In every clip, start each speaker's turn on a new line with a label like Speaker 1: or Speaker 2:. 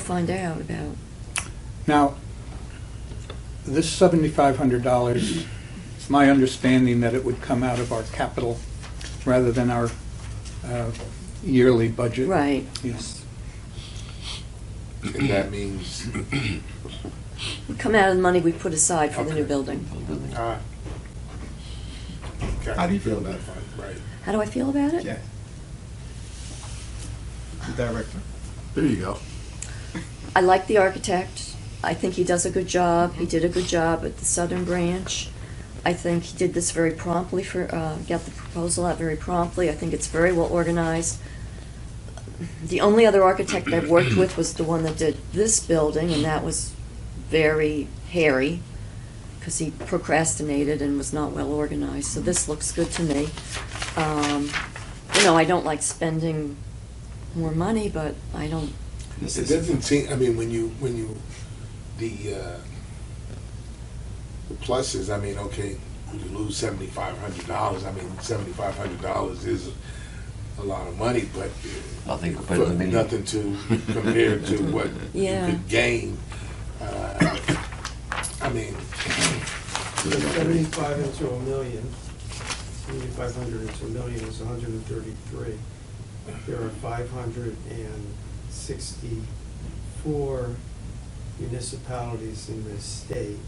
Speaker 1: find out about.
Speaker 2: Now, this seventy-five hundred dollars, it's my understanding that it would come out of our capital rather than our uh, yearly budget.
Speaker 1: Right.
Speaker 2: Yes.
Speaker 3: And that means,
Speaker 1: Would come out of the money we put aside for the new
Speaker 3: Okay.
Speaker 1: building.
Speaker 3: ah. Okay.
Speaker 4: How do you feel about it?
Speaker 3: Right.
Speaker 1: How do I feel about it?
Speaker 4: Yeah. The director.
Speaker 3: There you go.
Speaker 1: I like the architect. I think he does a good job. He did a good job at the Southern Branch. I think he did this very promptly for, uh, got the proposal out very promptly. I think it's very well organized. The only other architect I've worked with was the one that did this building, and that was very hairy because he procrastinated and was not well organized. So this looks good to me. Um, you know, I don't like spending more money, but I don't
Speaker 3: It doesn't seem, I mean, when you, when you, the, uh, the pluses, I mean, okay, you lose seventy-five hundred dollars, I mean, seventy-five hundred dollars is a lot of money, but
Speaker 5: Nothing
Speaker 3: for
Speaker 5: compared to me.
Speaker 3: nothing to, compare to what you
Speaker 1: Yeah.
Speaker 3: could gain. Uh, I mean,
Speaker 6: Seventy-five into a million, seventy-five hundred into a million is hundred and thirty-three. There are five hundred and sixty-four municipalities in this state.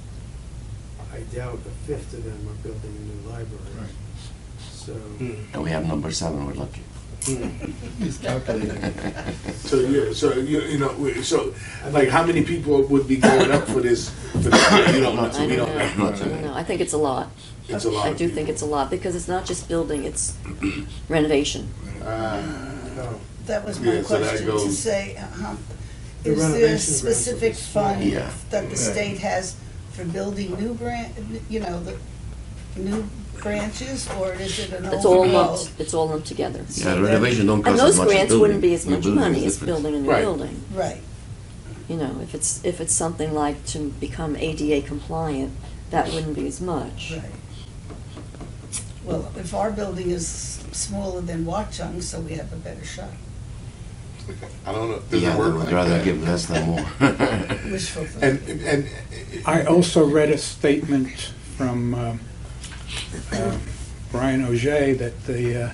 Speaker 6: I doubt a fifth of them are building a new library, so.
Speaker 3: mm,
Speaker 5: And we have number seven, we're lucky.
Speaker 3: mm.
Speaker 4: He's calculating.
Speaker 3: so, yeah, so, you, you know, we- so, like, how many people would be going up for this, for this, you know,
Speaker 1: I
Speaker 3: so we
Speaker 1: don't know.
Speaker 3: don't.
Speaker 1: I don't know. I think it's a lot.
Speaker 3: It's a lot
Speaker 1: I
Speaker 3: of
Speaker 1: do think
Speaker 3: people.
Speaker 1: it's a lot, because it's not just building, it's renovation.
Speaker 3: Ah.
Speaker 6: no.
Speaker 7: That was
Speaker 3: Yeah,
Speaker 7: my
Speaker 3: so that
Speaker 7: question, to
Speaker 3: goes-
Speaker 7: say, uh-huh,
Speaker 6: The
Speaker 7: is there a
Speaker 6: renovation grants are
Speaker 7: specific
Speaker 6: just small.
Speaker 7: fund
Speaker 5: Yeah.
Speaker 7: that the
Speaker 4: Yeah.
Speaker 7: state has for building new branch, you know, the new branches, or is it an overall?
Speaker 1: It's all lumped, it's all lumped together.
Speaker 5: Yeah, renovation don't
Speaker 1: And
Speaker 5: cost as
Speaker 1: those
Speaker 5: much as building.
Speaker 1: grants wouldn't be as
Speaker 5: The
Speaker 1: much
Speaker 5: building is
Speaker 1: money as
Speaker 5: different.
Speaker 1: building a new
Speaker 3: Right.
Speaker 1: building.
Speaker 7: Right,
Speaker 1: You know, if it's, if it's something like to become ADA compliant, that wouldn't be as much.
Speaker 7: right. Well, if our building is smaller than Watchung, so we have a better shot,
Speaker 3: I don't know. Does
Speaker 5: Yeah,
Speaker 3: it
Speaker 5: they
Speaker 3: work
Speaker 5: would
Speaker 3: like
Speaker 5: rather
Speaker 3: that?
Speaker 5: give less than more.
Speaker 7: wishful
Speaker 3: And
Speaker 7: thinking.
Speaker 3: and and
Speaker 2: I also read a statement from um, uh, Brian Ogier that the uh,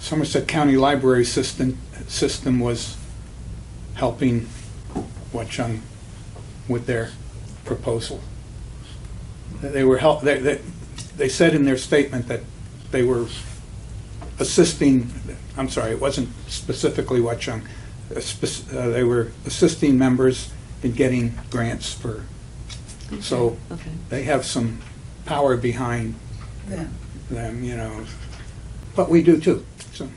Speaker 2: Somerset County Library System, system was helping Watchung with their proposal. That They were help, they, they, they said in their statement that they were assisting, I'm sorry, it wasn't specifically Watchung, uh, spec- uh, they were assisting members in getting grants for, so
Speaker 1: Okay.
Speaker 2: they have some power behind
Speaker 7: them.
Speaker 2: them, you know, but we do too, so.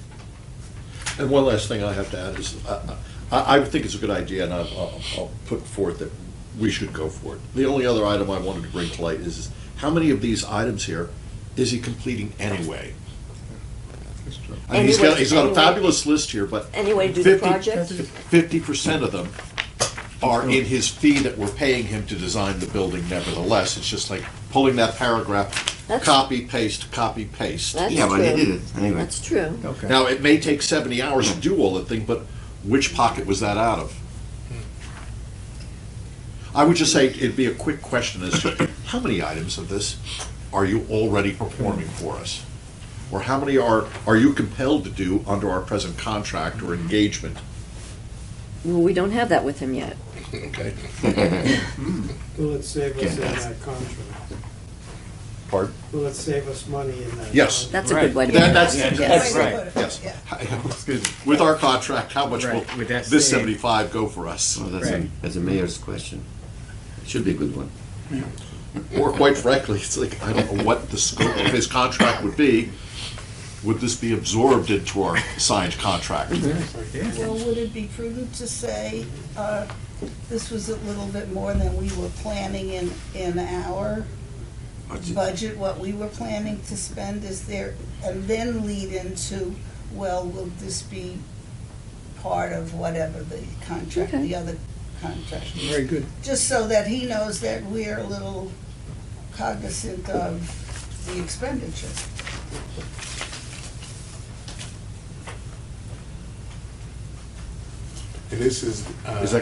Speaker 8: And one last thing I have to add is, uh, I, I think it's a good idea, and I'll, I'll- I'll put forth that we should go for it. The only other item I wanted to bring to light is, how many of these items here is he completing anyway? I mean, he's got, he's got a
Speaker 1: Anyway,
Speaker 8: fabulous list here, but
Speaker 1: Anyway, do the
Speaker 8: Fifty-
Speaker 1: project,
Speaker 8: fifty percent of them are in his fee that we're paying him to design the building nevertheless. It's just like pulling that paragraph,
Speaker 1: That's-
Speaker 8: copy, paste, copy, paste.
Speaker 1: That's
Speaker 5: Yeah, but they
Speaker 1: true.
Speaker 5: did it anyway.
Speaker 1: that's true.
Speaker 4: Okay.
Speaker 8: Now, it may take 70 hours to do all the thing, but which pocket was that out of? I would just say it'd be a quick question as to how many items of this are you already performing for us? Or how many are, are you compelled to do under our present contract or engagement?
Speaker 1: Well, we don't have that with him yet.
Speaker 3: okay.
Speaker 6: Will it save us in
Speaker 5: Yeah.
Speaker 6: that contract?
Speaker 8: Pardon?
Speaker 6: Will it save us money in that?
Speaker 8: Yes.
Speaker 6: contract?
Speaker 1: That's a good
Speaker 2: Right.
Speaker 1: way to do
Speaker 8: That-
Speaker 1: it.
Speaker 8: that's-
Speaker 1: Yes.
Speaker 7: Wait, wait,
Speaker 4: right,
Speaker 7: wait,
Speaker 8: Yes.
Speaker 7: yeah.
Speaker 8: Excuse me. With our contract, how much will
Speaker 4: Right, with that
Speaker 8: this
Speaker 4: same-
Speaker 8: 75 go for us?
Speaker 5: So that's a,
Speaker 4: Right.
Speaker 5: that's a mayor's question. Should be a good one.
Speaker 8: Or quite frankly, it's like, I don't know what the scope of his contract would be. Would this be absorbed into our signed contract?
Speaker 7: Well, would it be prudent to say, uh, this was a little bit more than we were planning in, in our budget, what we were planning to spend, is there, and then lead into, well, will this be part of whatever the contract,
Speaker 1: Okay.
Speaker 7: the other contract? is?
Speaker 2: Very good.
Speaker 7: Just so that he knows that we're a little cognizant of the expenditure.
Speaker 3: And this is. Uh,
Speaker 8: Is that